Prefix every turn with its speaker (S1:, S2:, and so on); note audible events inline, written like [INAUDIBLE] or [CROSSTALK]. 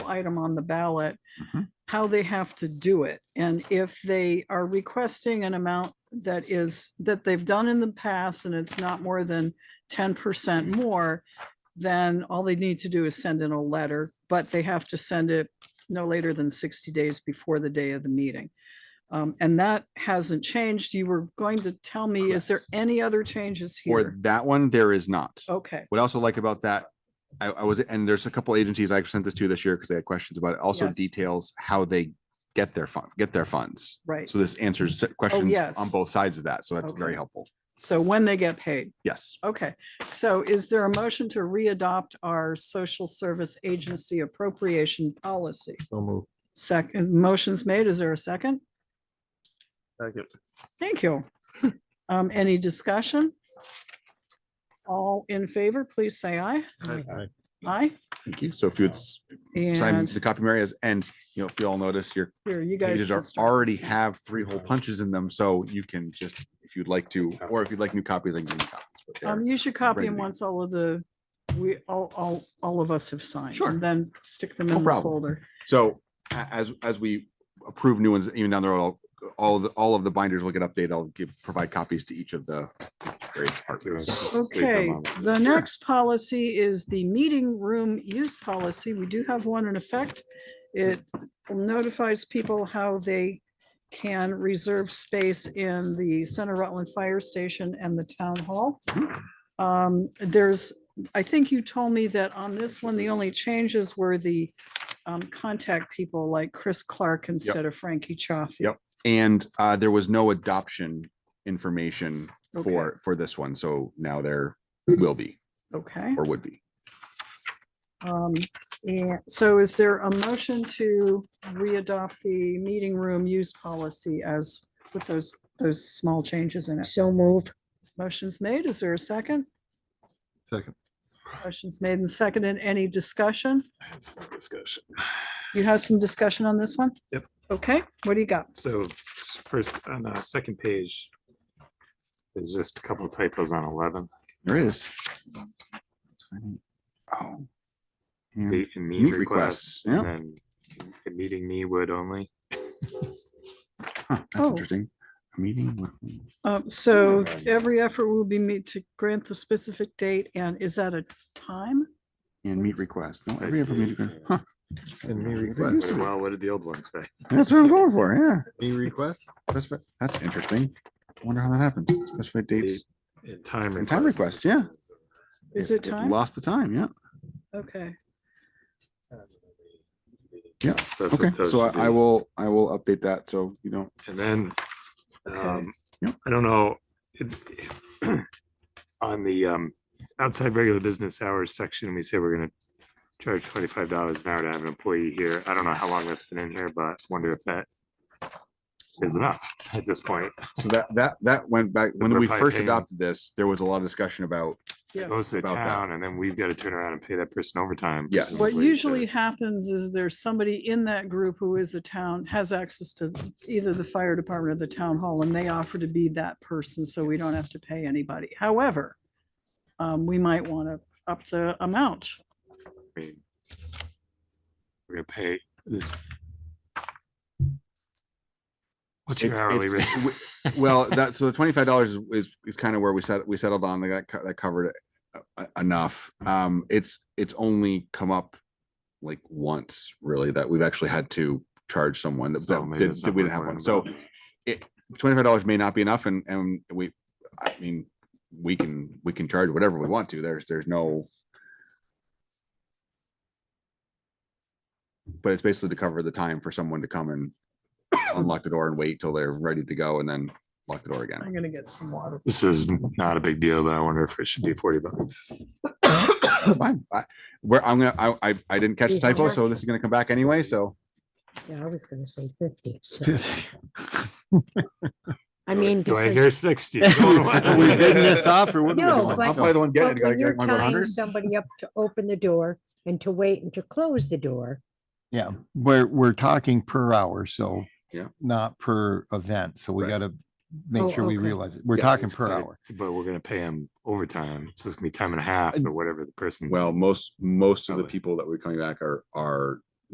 S1: item on the ballot,
S2: Mhm.
S1: how they have to do it. And if they are requesting an amount that is, that they've done in the past and it's not more than ten percent more, then all they need to do is send in a letter, but they have to send it no later than sixty days before the day of the meeting. Um, and that hasn't changed. You were going to tell me, is there any other changes
S2: For
S1: here?
S2: that one, there is not.
S1: Okay,
S2: What I also like about that, I, I was, and there's a couple agencies I sent this to this year because they had questions about it. Also
S1: Yes.
S2: details how they get their fund, get their funds.
S1: right.
S2: So this answers questions on
S1: Oh, yes.
S2: both sides of that. So that's very
S1: Okay.
S2: helpful.
S1: So when they get paid.
S2: Yes.
S1: Okay, so is there a motion to readopt our social service agency appropriation policy?
S3: So move.
S1: Second, motion's made. Is there a second?
S3: Second.
S1: Thank you. [LAUGHS] Um, any discussion? All in favor, please say aye. Aye.
S2: Thank you. So if you would s- sign
S1: And
S2: the copy Mary as, and you know, if you all notice your
S1: here, you guys.
S2: pages
S1: can
S2: are
S1: start
S2: already
S1: this.
S2: have three whole punches in them. So you can just, if you'd like to, or if you'd like new copies, I can give you copies. but
S1: Um,
S2: they're-
S1: you should copy
S2: ready to
S1: them
S2: go.
S1: once all of the, we, all, all, all of us have signed.
S2: Sure.
S1: And then stick them
S2: No
S1: in the
S2: problem.
S1: folder.
S2: So a- as, as we approve new ones, even down there, all, all, the- all of the binders will get updated. I'll give, provide copies to each of the various departments.
S1: Okay, the next policy is the meeting room use policy. We do have one in effect. It notifies people how they can reserve space in the Center Rutland Fire Station and the Town Hall. Um, There's, I think you told me that on this one, the only changes were the um, contact people like Chris Clark instead of Frankie Chaffee.
S2: Yep. And uh, there was no adoption information
S1: Okay.
S2: for, for this one. So now there will be
S1: Okay.
S2: or would be.
S1: Um, and so is there a motion to readopt the meeting room use policy as with those, those small changes in it?
S4: So move.
S1: Motion's made. Is there a second?
S3: Second.
S1: Motion's made and seconded. Any discussion?
S3: Discussion.
S1: You have some discussion on this one?
S3: Yep.
S1: Okay, what do you got?
S5: So s- first, on the second page, there's just a couple typos on eleven.
S2: There is. Oh. And-
S5: Date and
S2: Meet
S5: meet requests,
S2: requests, yeah.
S5: and then the meeting me would only.
S2: Huh, That's
S1: Oh.
S2: interesting. A meeting. with-
S1: Um, so every effort will be made to grant the specific date and is that a time?
S2: And meet request. No, every other meeting. Huh,
S3: And me
S2: There
S3: [LAUGHS] request.
S2: is.
S5: Well, what did the old one say?
S2: That's what I'm going for, yeah.
S3: Me request?
S2: That's, what- that's interesting. Wonder how that happened. Specified dates.
S5: And time.
S2: And time
S5: requests.
S2: requests,
S1: Is it time?
S2: Lost the time, yeah.
S1: Okay,
S2: Yeah,
S5: So that's what
S2: Okay,
S5: those
S2: so
S5: should
S2: I I
S5: be.
S2: will, I will update that, so you don't.
S5: And then,
S1: Okay.
S5: um,
S2: Yep.
S5: I don't know. it- [CLEARS THROAT] On the, um, outside regular business hours section, we say we're gonna charge twenty-five dollars an hour to have an employee here. I don't know how long that's been in here, but wonder if that is enough at this point.
S2: So that, that, that went back, when
S5: We're
S2: we
S5: probably
S2: first
S5: paying-
S2: adopted this, there was a lot of discussion about,
S1: yeah.
S5: Goes to the
S2: About that.
S5: town and then we've got to turn around and pay that person overtime.
S2: Yes.
S1: What
S5: presumably, to-
S1: usually happens is there's somebody in that group who is a town, has access to either the fire department or the town hall, and they offer to be that person, so we don't have to pay anybody. However, um, we might want to up the amount.
S5: I mean, We're gonna pay this. What's your
S2: It's-
S5: hourly
S2: it's-
S5: rate? [LAUGHS]
S2: w- well, that, so the twenty-five dollars is, is kind of where we set, we settled on, like that, co- that covered it uh, uh, enough. Um, it's, it's only come up like once, really, that we've actually had to charge someone that,
S5: So
S2: that
S5: maybe
S2: did-
S5: it's
S2: that
S5: not
S2: we
S5: worth
S2: didn't have
S5: worrying
S2: one, so it, twenty-five dollars may not be enough, and, and we, I mean, we can, we can charge whatever we want to, there's, there's no but it's basically to cover the time for someone to come and unlock the door and wait till they're ready to go and then lock the door again.
S1: I'm gonna get some water.
S5: This is not a big deal, but I wonder if it should be forty bucks.
S2: That's Fine. I- Where I'm gonna, I, I, I didn't catch the typo, so this is gonna come back anyway, so.
S4: Yeah, I was gonna say fifty. so- I mean.
S5: Do I
S4: because-
S5: hear [LAUGHS] sixty?
S3: We bidding this up or what? are we
S4: No,
S3: doing?
S4: but-
S2: I'll play the one, get
S4: but
S2: it.
S4: When
S2: I
S4: you're
S2: wanna go
S4: tying
S2: 100s?
S4: somebody up to open the door and to wait and to close the door,
S3: Yeah, we're, we're talking per hour, so.
S2: Yeah.
S3: Not per event, so we
S2: Right.
S3: gotta
S4: Oh,
S3: make sure we
S4: okay.
S3: realize it. We're
S2: Yeah,
S3: talking
S5: It's
S3: per
S5: but
S3: hour.
S5: it's- But we're gonna pay him overtime, so it's gonna be time and a half or whatever the person.
S2: Well, most, most of the
S5: Probably.
S2: people that we're coming back are, are